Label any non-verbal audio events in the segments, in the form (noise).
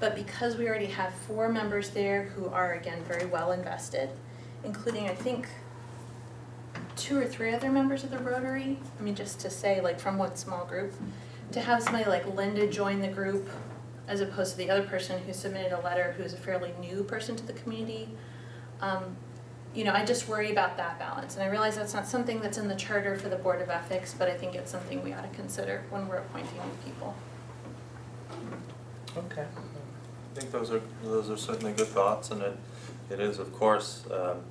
But because we already have four members there who are again very well invested, including I think two or three other members of the Rotary, I mean, just to say like from one small group, to have somebody like Linda join the group as opposed to the other person who submitted a letter who's a fairly new person to the community. Um, you know, I just worry about that balance, and I realize that's not something that's in the charter for the Board of Ethics, but I think it's something we ought to consider when we're appointing new people. Okay. I think those are, those are certainly good thoughts, and it, it is, of course, um,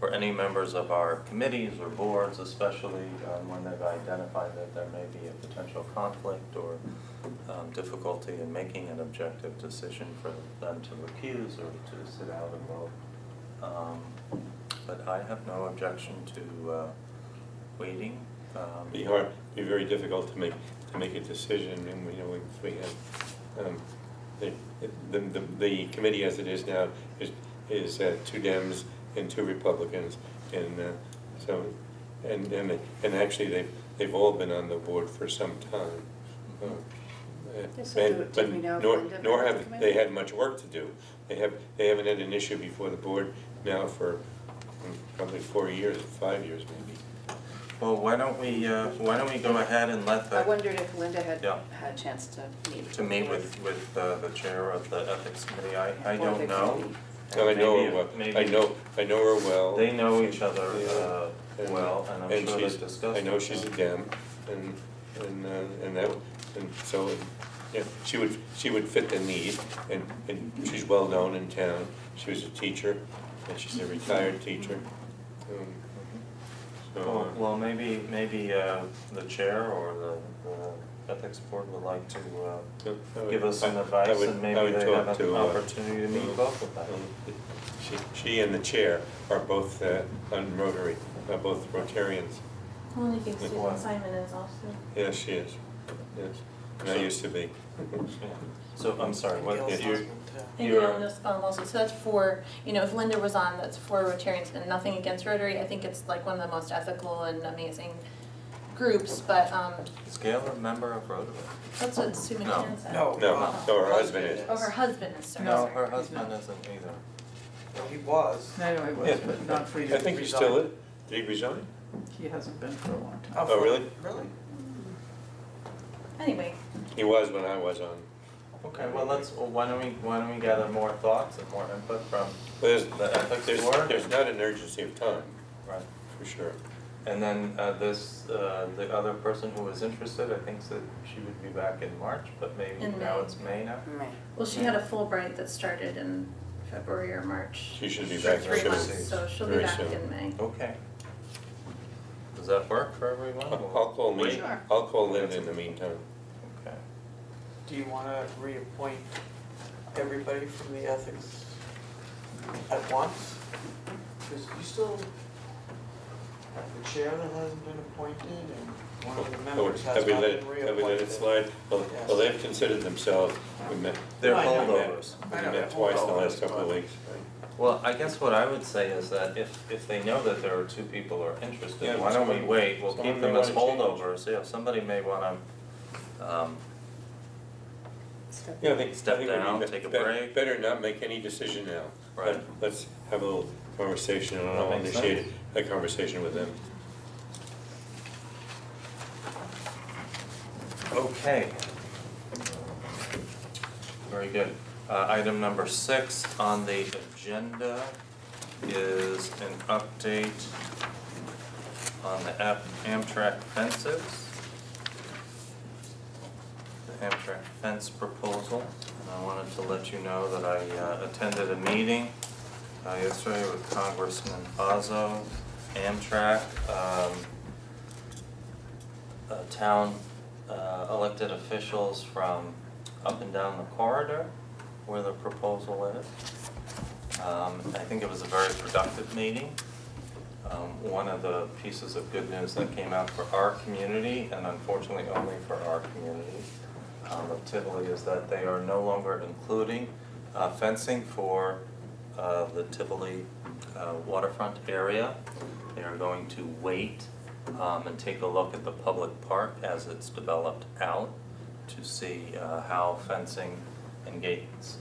for any members of our committees or boards especially, um, when they've identified that there may be a potential conflict or um, difficulty in making an objective decision for them to recuse or to sit out and vote. Um, But I have no objection to uh, waiting. um, Be hard, be very difficult to make, to make a decision, and we know if we have, um, the, the, the, the committee as it is now is, is uh, two Dems and two Republicans, and, uh, so, and, and, and actually, they've, they've all been on the board for some time. Uh, Yes, uh, I do. and- Did but we know if nor- Linda Nor made the have, they committee? had much work to do. They have, they haven't had an issue before the board now for mm, probably four years, five years maybe. Well, why don't we, uh, why don't we go ahead and let the I wondered if Linda had Yeah. had a chance to meet. to meet with, with uh, the chair of the ethics committee, I, I Or they don't could know. meet. No, I know her Maybe- well, I maybe- know, I know her well. They know each other, uh, And- well, and I'm sure she's- they've discussed. I know it. she's a Dem, and, and, uh, and that, and so, yeah, she would, she would fit the need, and, and she's well-known in town. She was a teacher, and she's a retired teacher. Um, Well, So, uh, well, maybe, maybe, uh, the chair or the, the ethics board would like to, uh, uh, I would- give us some I- I advice would- and I maybe would they talk have an to, uh, opportunity to meet both of them. Um, She, she and the chair are both, uh, on Rotary, are both Rotarians. I only think Good Susan point. Simon is also. Yes, she is, yes, and I So- used to (laughs) be. Yeah. um, So, I'm sorry, what, Gail's you're, And You're- Gail Nussbaum also, so that's four, you know, if Linda was on, that's four Rotarians and nothing against Rotary, I think it's like one of the most ethical and amazing groups, but, um, is Gail a member of Rotary? that's what Sue No. McCann said. No. No, no, her husband is. Oh, her husband is, sorry, No, sorry. her husband isn't either. He Oh, was. No, no, he Yeah, was, but not for you. I think he still is. Did he resign? He hasn't been for a long time. Oh, really? Really? Anyway, He was when I was on. Okay, well, let's, well, why don't we, why don't we gather more thoughts and more input from, But The ethics there's, there's, board? there's not an urgency of time, right? for sure. And then uh, this, uh, the other person who was interested, I think said she would be back in March, but maybe In now May. it's May now. Right. well, she had a Fulbright that started in February or March. She should be for back three soon. months, so she'll be Very back soon. in May. Okay. Does that work for (laughs) Oh, everyone? I'll I'll call me, Sure. I'll call Lynn in the meantime. Okay. Do you wanna reappoint everybody from the ethics at once? Cause you still have the chair that hasn't been appointed and one of the members has Oh, Have not we been let reappointed. it, have we let it slide? Well, Yes. well, they've considered themselves, we met, They're Right, yeah. holdovers. we I know, met they're twice in the holdovers, last couple of but- weeks. Well, I guess what I would say is that if, if they know that there are two people who are Yeah, interested, why don't we someone- wait? We'll someone keep may them as wanna change. holdovers. Yeah, somebody may wanna, um, Yeah, I think, I Step think we need down, to- take a better- break. Better not make any decision now. Right. Let- Let's have a little conversation and That I'll makes initiate a conversation with them. Okay. Very good. Uh, item number six on the agenda is an update on the Ap- Amtrak fences. The Amtrak fence proposal, and I wanted to let you know that I uh, attended a meeting uh, yesterday with Congressman Bazo, Amtrak, um, uh, town uh, elected officials from up and down the corridor where the proposal is. Um, I think it was a very productive meeting. Um, One of the pieces of good news that came out for our community, and unfortunately only for our community, um, of Tivoli, is that they are no longer including uh, fencing for uh, the Tivoli uh, waterfront area. They are going to wait um, and take a look at the public park as it's developed out to see uh, how fencing and gates